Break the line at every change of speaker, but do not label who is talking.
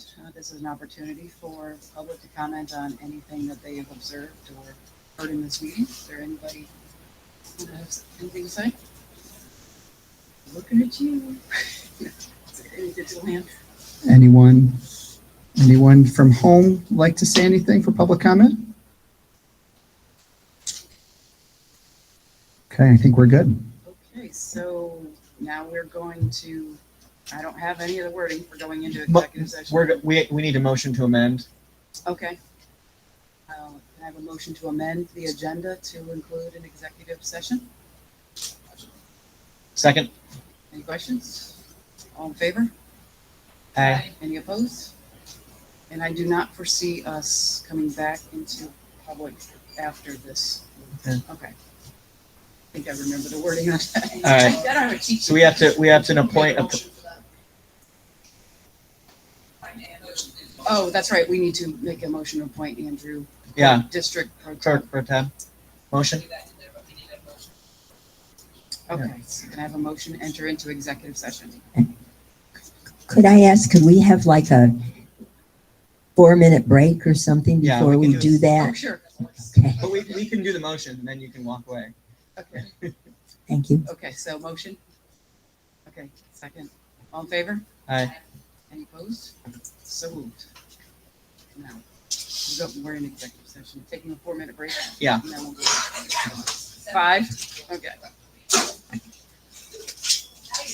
Uh, This is an opportunity for public to comment on anything that they have observed or heard in this meeting. Is there anybody who has anything to say? Looking at you. Is there Any digital hand?
Anyone, anyone from home like to say anything for public comment? Okay, I think we're good.
Okay, so now we're going to, I don't have any of the wording for going into
Mo-
executive session.
We're, go- we, we need a motion to amend.
Okay. Uh, Can I have a motion to amend the agenda to include an executive session?
Second?
Any questions? All in favor?
Aye.
Any opposed? And I do not foresee us coming back into public after this.
Okay.
Okay. I think I remember the wording on that.
All right.
I don't have a cheat
So we have to, we have to appoint, a-
sheet. Oh, that's right, we need to make a motion to appoint Andrew.
yeah,
District pro tem.
clerk pro tem. Motion?
Okay, so can I have a motion to enter into executive session?
Could I ask, could we have like a four-minute break or something
Yeah,
before
we
we
can do
do
Oh,
that?
sure.
Okay,
But we, we can do the motion and then you can walk away.
Okay,
thank you.
okay, so motion? Okay, second. All in favor?
Aye.
Any opposed? So moved. Now, we'll go- we're in executive session, taking a four-minute break.
Yeah.
And then we'll go- Five, okay.